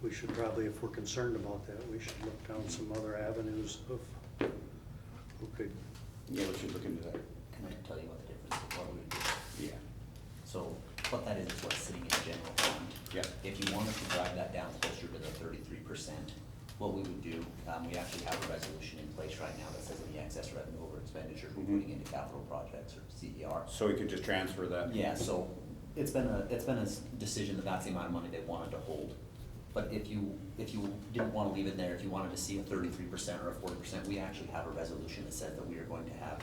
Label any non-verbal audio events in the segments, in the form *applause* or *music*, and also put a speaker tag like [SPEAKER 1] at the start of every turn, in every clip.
[SPEAKER 1] we should probably, if we're concerned about that, we should look down some other avenues of who could,
[SPEAKER 2] Yeah, we should look into that.
[SPEAKER 3] And I tell you what the difference of what we would do.
[SPEAKER 2] Yeah,
[SPEAKER 3] So what that is, is what's sitting in the general fund.
[SPEAKER 2] Yeah.
[SPEAKER 3] If you wanted to drive that down closer to the thirty-three percent, what we would do, um, we actually have a resolution in place right now that says any excess revenue over expenditure we're
[SPEAKER 2] Mhm.
[SPEAKER 3] putting into capital projects or CER.
[SPEAKER 2] so we could just transfer that?
[SPEAKER 3] Yeah, so it's been a, it's been a s- decision that that's the amount of money they wanted to hold. But if you, if you didn't wanna leave it there, if you wanted to see a thirty-three percent or a forty percent, we actually have a resolution that says that we are going to have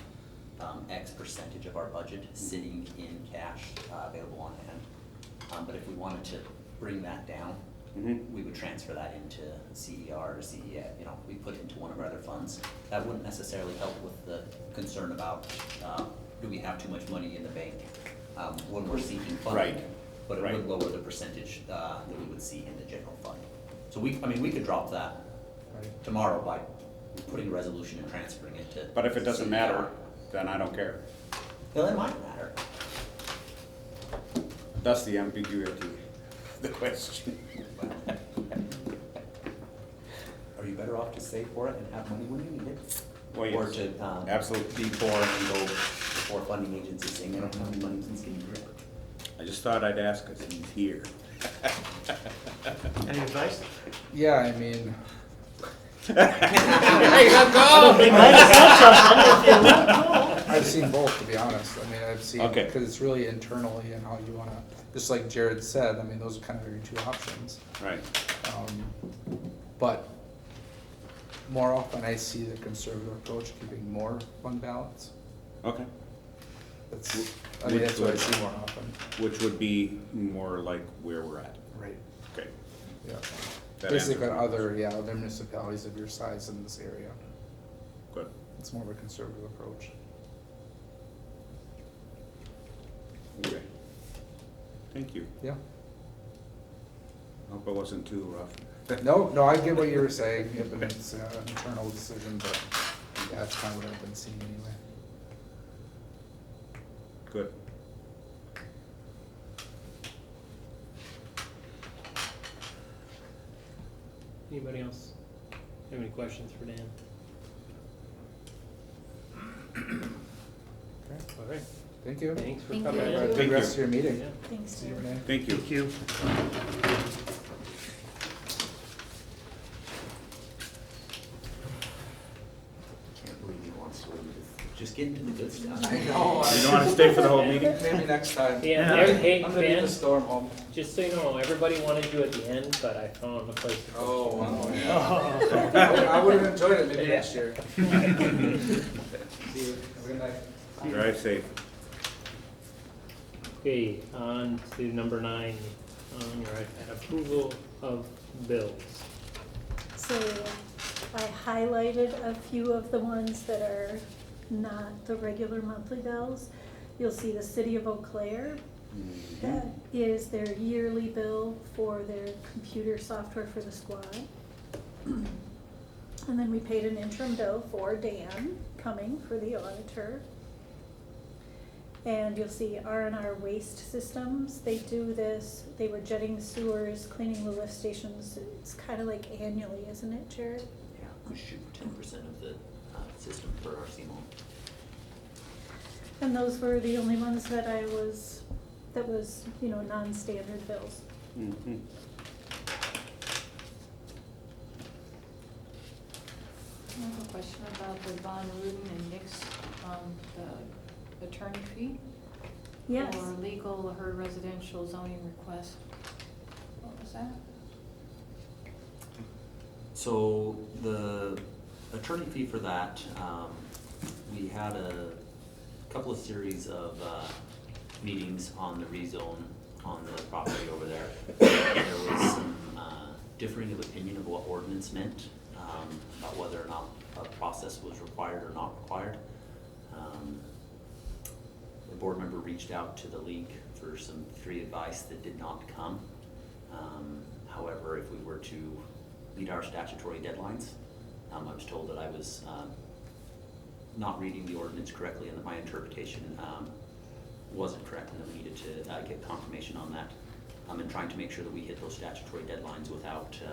[SPEAKER 3] um, X percentage of our budget sitting in cash, uh, available on hand. Um, but if we wanted to bring that down,
[SPEAKER 2] Mhm.
[SPEAKER 3] we would transfer that into CER or CEF, you know, we put it into one of our other funds. That wouldn't necessarily help with the concern about, uh, do we have too much money in the bank, um, when we're seeking funding?
[SPEAKER 2] Right,
[SPEAKER 3] But it
[SPEAKER 2] right.
[SPEAKER 3] would lower the percentage, uh, that we would see in the general fund. So we, I mean, we could drop that tomorrow by putting a resolution and transferring it to.
[SPEAKER 2] But if it doesn't matter,
[SPEAKER 3] CER.
[SPEAKER 2] then I don't care.
[SPEAKER 3] Well, it might matter.
[SPEAKER 2] That's the ambiguity, of the question.
[SPEAKER 3] Are you better off to save for it and have money when you need it?
[SPEAKER 2] Well, yes.
[SPEAKER 3] Or to, um,
[SPEAKER 2] Absolute D four
[SPEAKER 3] and
[SPEAKER 2] and
[SPEAKER 3] go
[SPEAKER 2] go,
[SPEAKER 3] before funding agencies saying they don't have any money, please give me grant.
[SPEAKER 2] I just thought I'd ask because he's here.
[SPEAKER 4] Any advice?
[SPEAKER 5] Yeah, I mean, I've seen both, to be honest. I mean, I've seen,
[SPEAKER 2] Okay.
[SPEAKER 5] because it's really internally and how you want to, just like Jared said, I mean, those are kind of your two options.
[SPEAKER 2] *laughs* Right,
[SPEAKER 5] Um, But more often I see the conservative approach keeping more fund balance.
[SPEAKER 2] okay,
[SPEAKER 5] That's, I mean, that's what I see more often.
[SPEAKER 2] which would be more like where we're at.
[SPEAKER 5] Right.
[SPEAKER 2] Okay.
[SPEAKER 5] Yeah.
[SPEAKER 2] That
[SPEAKER 5] Basically,
[SPEAKER 2] answers my
[SPEAKER 5] other, yeah, other municipalities of your size in this area,
[SPEAKER 2] Good.
[SPEAKER 5] it's more of a conservative approach.
[SPEAKER 2] Okay. Thank you.
[SPEAKER 5] Yeah.
[SPEAKER 2] Hope I wasn't too rough.
[SPEAKER 5] No, no, I get what you were saying, yeah, but it's uh, an internal decision, but yeah, that's kind of what I've been seeing anyway.
[SPEAKER 2] Good.
[SPEAKER 4] Anybody else have any questions for Dan?
[SPEAKER 5] Okay,
[SPEAKER 4] All right,
[SPEAKER 5] Thank you.
[SPEAKER 4] thanks for
[SPEAKER 6] Thank
[SPEAKER 4] coming
[SPEAKER 6] you.
[SPEAKER 5] Have a
[SPEAKER 4] in.
[SPEAKER 2] Thank
[SPEAKER 5] good
[SPEAKER 2] you.
[SPEAKER 5] rest of your meeting.
[SPEAKER 4] Yeah.
[SPEAKER 6] Thanks,
[SPEAKER 5] See you,
[SPEAKER 6] Sarah.
[SPEAKER 5] Renee.
[SPEAKER 2] Thank you.
[SPEAKER 4] you.
[SPEAKER 3] Can't believe he wants to, leave this. just get into the good stuff. *laughs*
[SPEAKER 5] I know.
[SPEAKER 2] You don't want to stay for the whole *laughs* meeting?
[SPEAKER 5] Maybe next time.
[SPEAKER 4] Yeah, there- hey,
[SPEAKER 5] I'm gonna be
[SPEAKER 4] Ben.
[SPEAKER 5] the storm home.
[SPEAKER 4] Just so you know, everybody wanted you at the end, but I found a place to.
[SPEAKER 5] Oh, wow.
[SPEAKER 4] *laughs*
[SPEAKER 5] yeah. I would have enjoyed it maybe
[SPEAKER 4] Yeah.
[SPEAKER 5] next year. See you. Have a good night.
[SPEAKER 2] Drive safe.
[SPEAKER 4] Okay, on to number nine, on your iPad, approval of bills.
[SPEAKER 6] So I highlighted a few of the ones that are not the regular monthly bills. You'll see the City of Eau Claire,
[SPEAKER 5] Mm-hmm.
[SPEAKER 6] that is their yearly bill for their computer software for the squad. And then we paid an interim bill for Dan coming for the auditor. And you'll see R and R Waste Systems, they do this, they were jetting sewers, cleaning the lift stations, it's kinda like annually, isn't it, Jared?
[SPEAKER 3] Yeah, we shoot ten percent of the, uh, system for our CMOL.
[SPEAKER 6] And those were the only ones that I was, that was, you know, non-standard bills.
[SPEAKER 2] Mhm.
[SPEAKER 7] I have a question about the Von Rudin and Nick's, um, the attorney fee.
[SPEAKER 6] Yes.
[SPEAKER 7] For legal, her residential zoning request. What was that?
[SPEAKER 3] So the attorney fee for that, um, we had a couple of series of, uh, meetings on the rezone on the property over there. There was some, uh, differing of opinion of what ordinance meant, um, about whether or not a process was required or not required. Um, the board member reached out to the league for some free advice that did not come. Um, however, if we were to meet our statutory deadlines, um, I was told that I was, um, not reading the ordinance correctly and that my interpretation, um, wasn't correct and that we needed to, uh, get confirmation on that. Um, and trying to make sure that we hit those statutory deadlines without, uh,